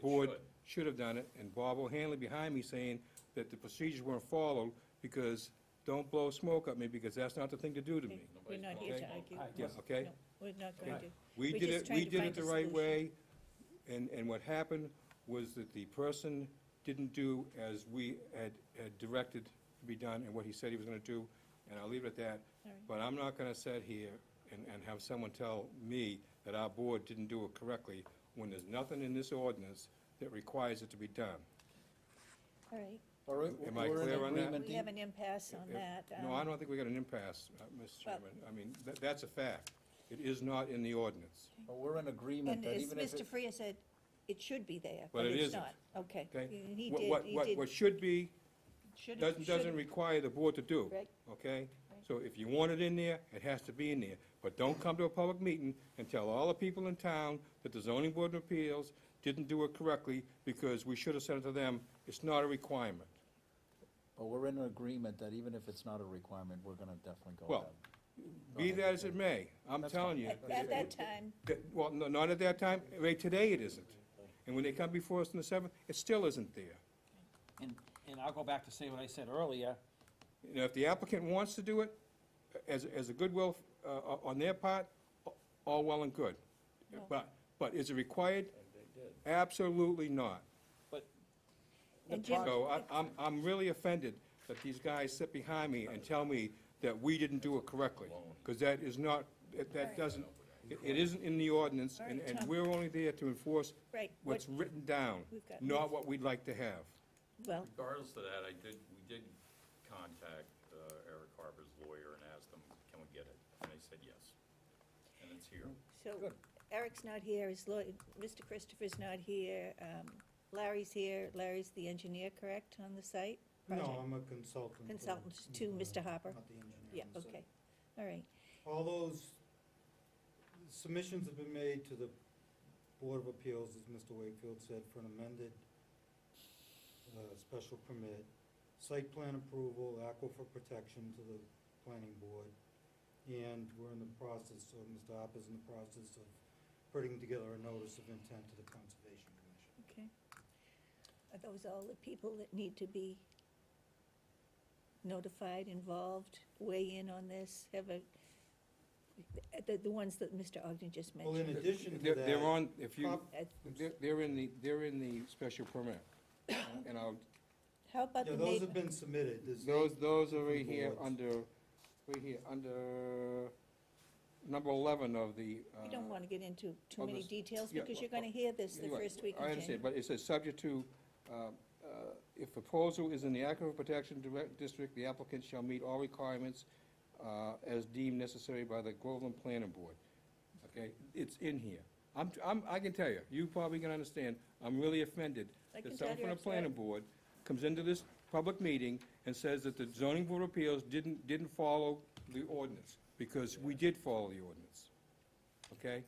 board should have done it, and Bob O'Hanley behind me saying that the procedures weren't followed, because don't blow smoke at me, because that's not the thing to do to me. We're not here to Okay. argue. Yeah, okay? No, We're not going to. We We're did just it, trying we to did find it the a right solution. way, and, and what happened was that the person didn't do as we had, had directed to be done and what he said he was gonna do, and I'll leave it at that. All right. But I'm not gonna sit here and, and have someone tell me that our board didn't do it correctly when there's nothing in this ordinance that requires it to be done. All right, All right, Am I we're in clear on that? agreement. we have an impasse on If- that. No, um, I don't think we got an impasse, uh, Mr. Well- Chairman. I mean, that, that's a fact. It is not in the ordinance, But We're in agreement And that as even if Mr. it, Freya said, it should be there, But but it it's isn't. not. Okay. okay? And He What- did, what- he what- did. What should be should've- doesn't, doesn't should've- require the board to do, Right. okay? Right. So if you want it in there, it has to be in there, but don't come to a public meeting and tell all the people in town that the zoning board of appeals didn't do it correctly, because we should have said it to them, it's not a requirement. but we're in agreement that even if it's not a requirement, we're gonna definitely go Well, with Be that as it may, I'm That's telling you. At at that time, that- Well, no, not at that time, right today it isn't. And when they come before us on the seventh, it still isn't there. And, and I'll go back to say what I said earlier, You know, if the applicant wants to do it, as, as a goodwill uh, on their part, all well and good. But, but is it required? Absolutely not. and Jim, So I- I'm, I'm really offended that these guys sit behind me and tell me that we didn't do it correctly, because that is not, that- that doesn't, it- it isn't in the ordinance, and, and we're only there to enforce Right, what- what's written down, We've got- not what we'd like to have. well, Regardless of that, I did, we did contact uh, Eric Harper's lawyer and asked him, can we get it? And they said yes. And it's here. so Eric's not here, his lawyer, Mr. Christopher's not here, um, Larry's here. Larry's the engineer, correct, on the site? No, Project I'm a consultant. to- Consultant to Mr. Harper? Not the engineer. Yeah, So okay, all right. All those submissions have been made to the Board of Appeals, as Mr. Wakefield said, for an amended uh, special permit, site plan approval, aquifer protection to the planning board. And we're in the process, or Mr. Harper's in the process of putting together a notice of intent to the Conservation Commission. Okay. Are those all the people that need to be notified, involved, weigh in on this, have a, uh, the, the ones that Mr. Ogden just Well, in mentioned? addition to They're- that. They're on, if you, Bob- Uh, they're, they're in the, they're in the special permit, and I'll, How about Yeah, the those neighbor? have been submitted. There's Those, those are right here Boards. under, right here, under number 11 of the. We don't uh, want to get into too of many this- details, yeah, because well, you're going to hear this the anyway, first week I in understand, January. but it says subject to, uh, uh, if proposal is in the aquifer protection direct district, the applicant shall meet all requirements uh, as deemed necessary by the Groveland Planning Board. Okay, it's in here. I'm, I'm, I can tell you, you probably can understand, I'm really offended I can that tell someone from you're the planning upset. board comes into this public meeting and says that the zoning board of appeals didn't, didn't follow the ordinance, because we did follow the ordinance. Okay?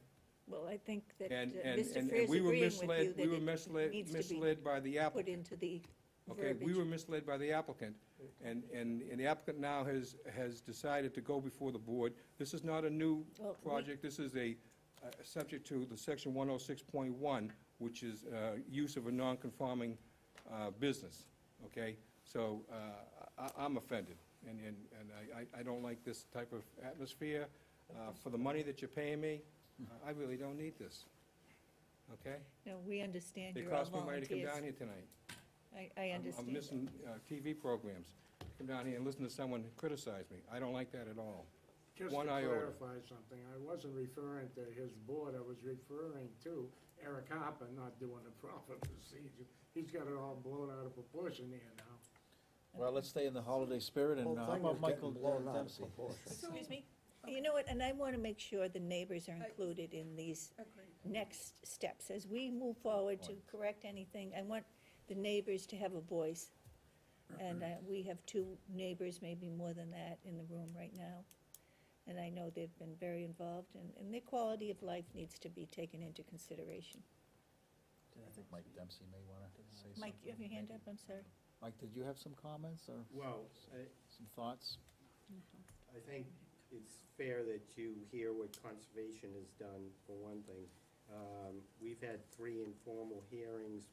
Well, I think that uh, And, and, Mr. and and Freer's we were agreeing with misled, you we were that it misled, needs to be misled by the put applicant. into the Okay, we were verbiage. misled by the applicant, and, and, and the applicant now has, has decided to go before the board. This is not a new Well, Oh, we- project, this is a, uh, subject to the section one oh six point one, which is, uh, use of a non-conforming, uh, business, okay? So, uh, I, I'm offended, and, and, and I- I, I don't like this type of atmosphere. Uh, for the money that you're paying me, I really don't need this, okay? No, we understand It you're all cost me money to come volunteers. down here tonight. I, I I'm- understand. I'm missing uh, TV programs. Come down here and listen to someone criticize me. I don't like that at all. Just to One iota. clarify something, I wasn't referring to his board, I was referring to Eric Harper not doing the proper procedure. He's got it all blown out of proportion here now. it. Well, let's stay in the holiday spirit and uh, how about Michael uh, Dempsey? Excuse me? You know what, and I want to make sure the neighbors are included in these next steps. As we move forward to correct anything, I want the neighbors to have a voice. And uh, we have two neighbors, maybe more than that, in the room right now. And I know they've been very involved, and, and their quality of life needs to be taken into consideration. I think Mike Dempsey may wanna say something. Mike, you have your hand up, I'm sorry. Mike, did you have some comments or Well, I, some thoughts? I think it's fair that you hear what conservation has done, for one thing. Um, We've had three informal hearings